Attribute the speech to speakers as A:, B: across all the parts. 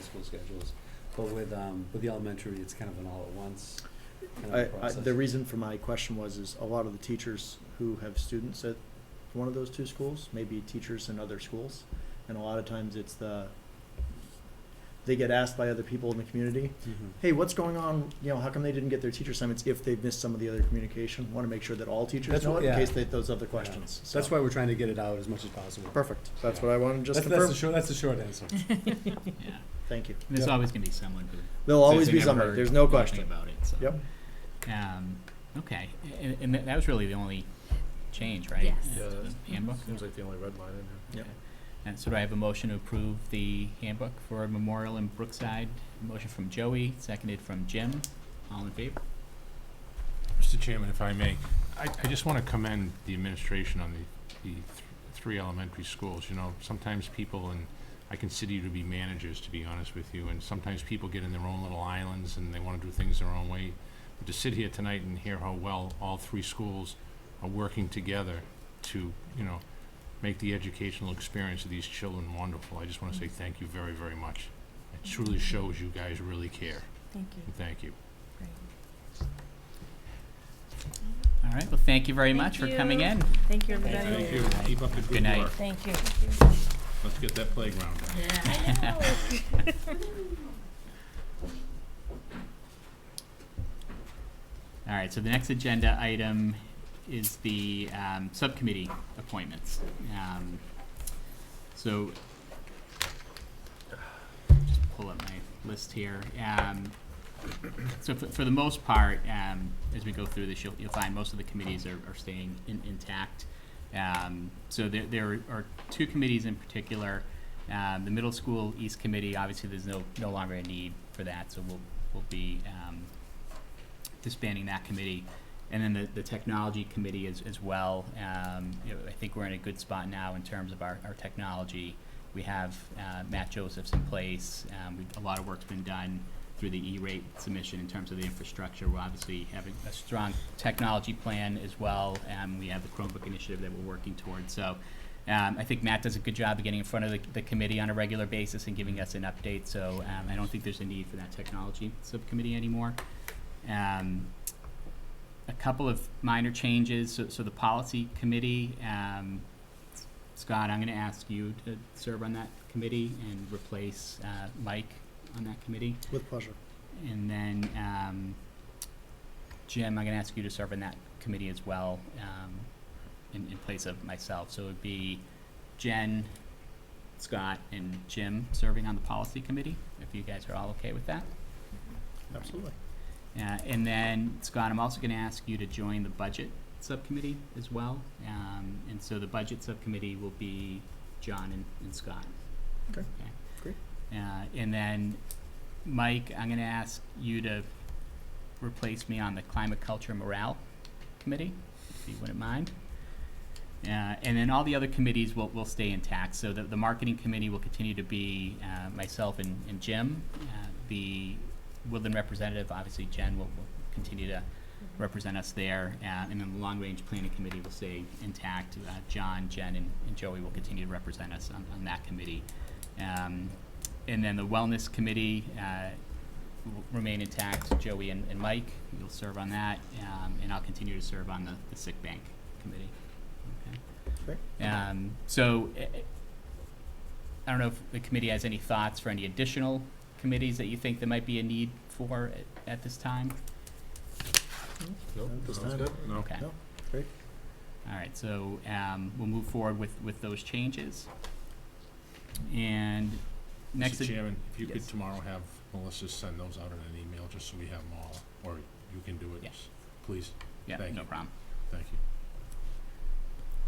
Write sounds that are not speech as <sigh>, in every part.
A: school schedules. But with, um, with the elementary, it's kind of an all at once kind
B: I,
A: of
B: I,
A: process.
B: the reason for my question was, is a lot of the teachers who have students at one of those two schools, maybe teachers in other schools, and a lot of times it's the, they get asked by other people in the community,
A: Mhm.
B: hey, what's going on, you know, how come they didn't get their teacher assignments if they've missed some of the other communication? Want to make sure that all teachers
A: That's
B: know
A: what-
B: it, in
A: yeah.
B: case they, those other questions. So-
A: That's why we're trying to get it out as much as possible.
B: Perfect, that's what I wanted to
A: That's,
B: just
A: that's the
B: confirm,
A: short, that's the short <laughs> answer.
C: Yeah,
B: thank you.
C: and there's
A: Yeah.
C: always gonna be someone who.
B: There'll always
C: says
B: be
C: they never
B: somebody,
C: heard
B: there's no
C: nothing
B: question.
C: About it, so.
B: Yep.
C: Um, okay, and, and that- that was really the only change, right?
D: Yes.
C: Uh,
E: Yeah,
C: to the Handbook?
E: Seems like the only red line in here.
B: Yep.
C: And so do I have a motion to approve the handbook for Memorial in Brookside? Motion from Joey, seconded from Jim, all in favor?
F: Mr. Chairman, if I may, I, I just want to commend the administration on the, the th- three elementary schools, you know, sometimes people, and I consider you to be managers, to be honest with you, and sometimes people get in their own little islands and they want to do things their own way. But to sit here tonight and hear how well all three schools are working together to, you know, make the educational experience of these children wonderful, I just want to say thank you very, very much. It truly shows you guys really care,
D: Thank you.
F: and thank you.
D: Great.
C: All right, well, thank you very
D: Thank
C: much for coming
D: you.
C: in.
D: Thank you,
C: Thank
D: everybody.
C: you.
E: Keep up the
C: Good night.
D: Thank you.
E: Let's get that playground done.
C: <laughs>
D: Yeah, I know.
C: All right, so the next agenda item is the um, subcommittee appointments. Um, So, just pull up my list here. Um, So for, for the most part, um, as we go through this, you'll, you'll find most of the committees are, are staying in- intact. Um, So there, there are two committees in particular. Um, The middle school East Committee, obviously, there's no, no longer a need for that, so we'll, we'll be um, disbanding that committee. And then the, the technology committee as, as well, um, you know, I think we're in a good spot now in terms of our, our technology. We have, uh, Matt Josephs in place, um, we, a lot of work's been done through the E-rate submission in terms of the infrastructure. We're obviously having a strong technology plan as well, and we have the Chromebook initiative that we're working towards, so. Um, I think Matt does a good job of getting in front of the, the committee on a regular basis and giving us an update, so, um, I don't think there's a need for that technology subcommittee anymore. Um, a couple of minor changes, so, so the policy committee, um, Scott, I'm gonna ask you to serve on that committee and replace, uh, Mike on that committee.
B: With pleasure.
C: And then, um, Jim, I'm gonna ask you to serve on that committee as well, um, in, in place of myself. So it'd be Jen, Scott, and Jim serving on the policy committee, if you guys are all okay with that.
B: Absolutely.
C: Uh, and then, Scott, I'm also gonna ask you to join the budget subcommittee as well. Um, and so the budget subcommittee will be John and, and Scott.
B: Okay.
C: Okay.
B: Great.
C: Uh, and then, Mike, I'm gonna ask you to replace me on the climate, culture, morale committee, if you wouldn't mind. Uh, and then all the other committees will, will stay intact, so the, the marketing committee will continue to be, uh, myself and, and Jim. Uh, the Woodland representative, obviously Jen will, will continue to represent us there, uh, and then the long range planning committee will stay intact. Uh, John, Jen, and, and Joey will continue to represent us on, on that committee. Um, and then the wellness committee, uh, will remain intact, Joey and, and Mike, you'll serve on that, um, and I'll continue to serve on the, the sick bank committee. Okay. Um, so, eh, eh, I don't know if the committee has any thoughts for any additional committees that you think there might be a need for at, at this time?
E: Nope,
B: At this
E: sounds
B: time.
E: good. No.
C: Okay.
B: No, great.
C: All right, so, um, we'll move forward with, with those changes. And next.
E: Mr.
C: ag-
E: Chairman, if you could
C: Yes.
E: tomorrow have Melissa send those out in an email, just so we have them all, or you can do it,
C: Yeah.
E: please,
C: Yeah,
E: thank
C: no
E: you.
C: problem.
E: thank you.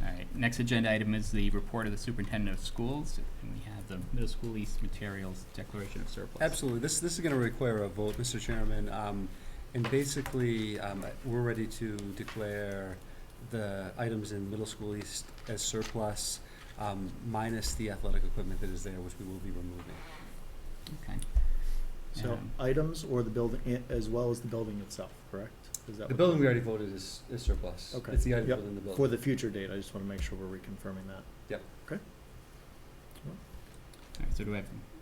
C: All right, next agenda item is the report of the superintendent of schools, and we have the middle school east materials declaration of surplus.
A: Absolutely. This, this is gonna require a vote, Mr. Chairman. Um, and basically, um, we're ready to declare the items in middle school east as surplus, um, minus the athletic equipment that is there, which we will be removing.
C: Okay,
B: So
C: Um,
B: items or the building, i- as well as the building itself, correct? Is that
A: The
B: what-
A: building we already voted is, is surplus.
B: Okay.
A: It's the items
B: Yep.
A: within the building.
B: For the future date, I just want to make sure we're reconfirming that.
C: all right, so do I have